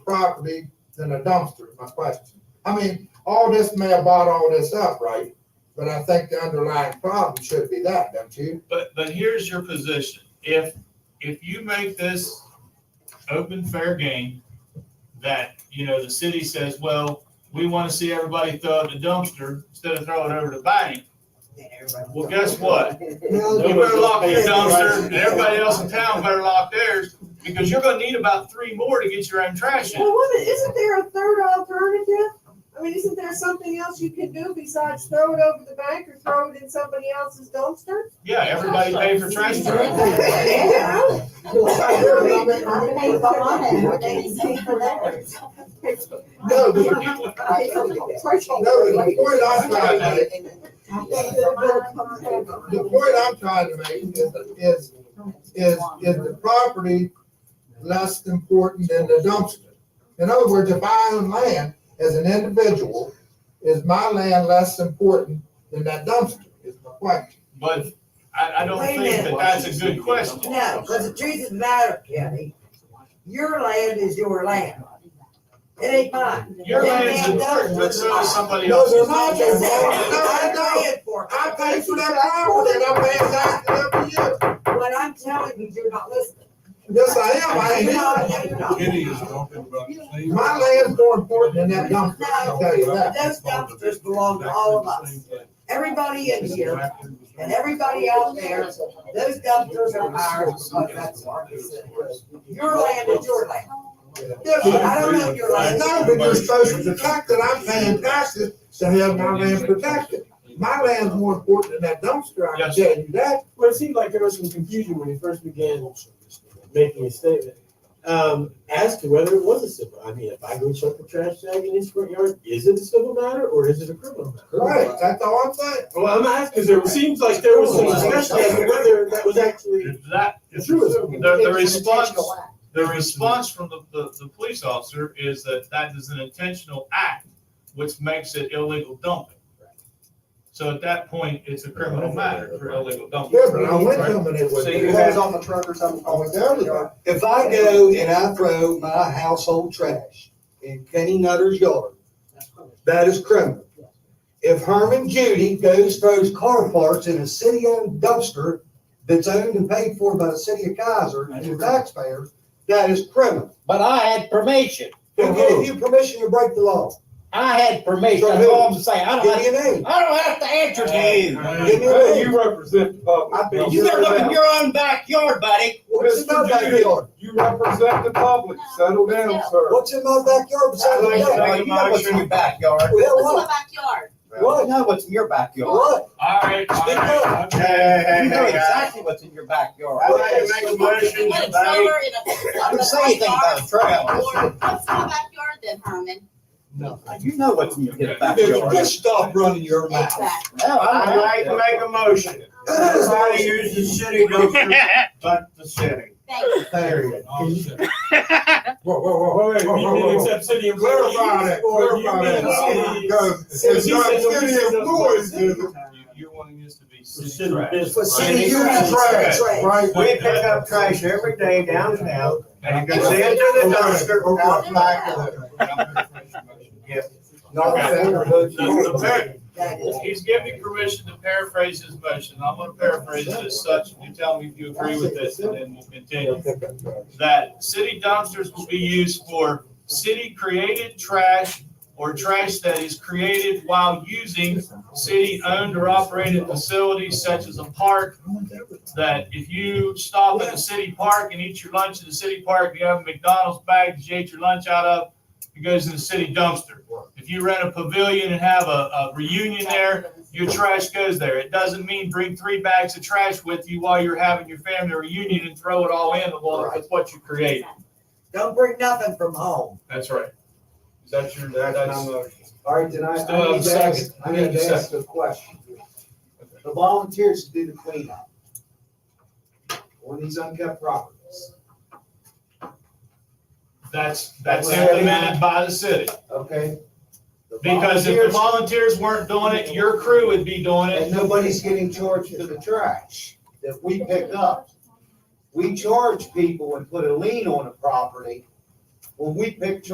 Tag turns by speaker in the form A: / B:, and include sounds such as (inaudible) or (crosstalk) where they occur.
A: property than a dumpster, is my question. I mean, all this may have bought all this up, right? But I think the underlying problem should be that, don't you?
B: But, but here's your position. If, if you make this open, fair game, that, you know, the city says, well, we want to see everybody throw out the dumpster instead of throwing it over the bank. Well, guess what? You better lock your dumpster and everybody else in town better lock theirs because you're going to need about three more to get your own trash in.
C: Well, woman, isn't there a third alternative? I mean, isn't there something else you can do besides throw it over the bank or throw it in somebody else's dumpster?
B: Yeah, everybody pay for trash.
C: (laughs)
B: truck.
C: Yeah.
A: No, but, no, the point I'm trying to make, the point I'm trying to make is, is, is, is the property less important than the dumpster? In other words, if I own land as an individual, is my land less important than that dumpster, is my question.
B: But I, I don't
D: Wait a
B: think that
D: minute.
B: that's a good question.
D: No, because the truth of the matter, Kenny, your land is your land. It ain't mine.
B: Your land's important, but so is somebody else's.
A: No, they're not.
D: Like I said, I'm
A: No, no.
D: paying for it.
A: I pay for that property and I pay taxes every year.
D: What I'm telling you, you're not listening.
A: Yes, I am, I ain't
D: No,
A: lying.
D: no, you're not.
E: Kitty is talking about. the same-
A: My land's more important than that dumpster, I'll tell you that.
D: Those dumpsters belong to all of us. Everybody in here and everybody out there, those dumpsters are ours because that's our city. Your land is your land.
A: Yes,
D: I
A: I
D: don't know your
A: I
D: land.
A: know, but you're supposed to protect it, I'm paying taxes to have my land protected. My land's more important than that dumpster, I can tell you that.
F: Well, it seemed like there was some confusion when he first began making his statement. Um, as to whether it was a civil, I mean, if I go chuck a trash bag in his front yard, is it a civil matter or is it a criminal matter?
A: Right, that's all I'm saying.
F: Well, I'm asking, there seems like there was some discussion as to whether that was actually
B: If that,
F: true.
B: The, the response, the response from the, the, the police officer is that that is an intentional act, which makes it illegal dumping. So at that point, it's a criminal matter for illegal dumping.
A: Yeah, but I went to them and it was.
G: So you
H: It was on the truck or something.
A: I went down to them.
H: If I go and I throw my household trash in Kenny Nutter's yard, that is criminal. If Herman Judy goes throws car parts in a city-owned dumpster that's owned and paid for by the city of Kaiser and taxpayers, that is criminal.
I: But I had permission.
H: Who gave you permission to break the law?
I: I had permission.
H: From
I: That's
H: who?
I: all I'm saying. I
H: Give
I: don't
H: me
I: have,
H: a name.
I: I don't have to answer to you.
H: Give me a name.
E: represent the
H: I bet
I: You better look in your own backyard, buddy.
H: What's in my backyard?
E: You represent the public, settle down, sir.
H: What's in my backyard besides
I: You
H: the
B: I'd
H: yard?
B: like to make a
I: know what's in
B: motion.
I: your backyard.
H: Well, what?
J: backyard?
I: You
H: What?
I: know what's in your backyard.
H: What?
B: All right, all
H: Speak
B: right.
H: up.
B: Hey, hey, hey,
I: You know
B: hey, guys.
I: exactly what's in your backyard.
B: I'd like to make a motion today.
I: I didn't say anything about a trail.
J: What's my backyard then, Herman?
I: You know what's in your
B: Okay.
I: backyard.
H: Just stop running your mouth.
J: Exactly.
I: No,
B: I'd
I: I
B: like
I: don't
B: to
I: have
B: make a motion. Everybody uses city dumpster,
I: to.
B: but the city.
J: Thank you.
H: Period.
A: Whoa, whoa, whoa, whoa,
F: Wait,
A: whoa,
F: you
A: whoa,
F: didn't
A: whoa.
F: accept city employees
A: Clarify that,
F: or you
A: clarify
F: meant
A: that.
F: city-
A: Because
F: city
A: it's not city
F: citizens.
A: employees, is it?
B: You- You're wanting this to be
F: City
B: city trash.
F: business.
D: For city
B: Right.
D: trash,
A: Trash,
D: trash.
A: right?
B: We pick up
G: trash every day downtown,
B: And you
J: It's
B: can see it
J: to
B: to the dumpster.
G: dumpster out back of it.
H: No,
B: The- the very-
D: That is.
B: He's giving me permission to paraphrase his motion. I'm gonna paraphrase it as such. You tell me if you agree with this and then we'll continue. That city dumpsters will be used for city-created trash or trash that is created while using city-owned or operated facilities such as a park. That if you stop at a city park and eat your lunch in the city park, you have a McDonald's bag that you ate your lunch out of, it goes in the city dumpster. If you rent a pavilion and have a, a reunion there, your trash goes there. It doesn't mean bring three bags of trash with you while you're having your family reunion and throw it all in the water with what you create.
D: Don't bring nothing from home.
B: That's right. Is that your, that's,
G: All right, then I,
B: Still
G: I
B: have a
G: need to ask,
B: second.
G: I need to ask a question. The volunteers do the cleanup on these unkept properties,
B: that's, that's implemented by the city.
G: okay? The
B: Because if the
G: volunteers-
B: volunteers weren't doing it, your crew would be doing
G: And
B: it.
G: nobody's getting charged for the trash that we pick up. We charge people and put a lien on a property when we pick trash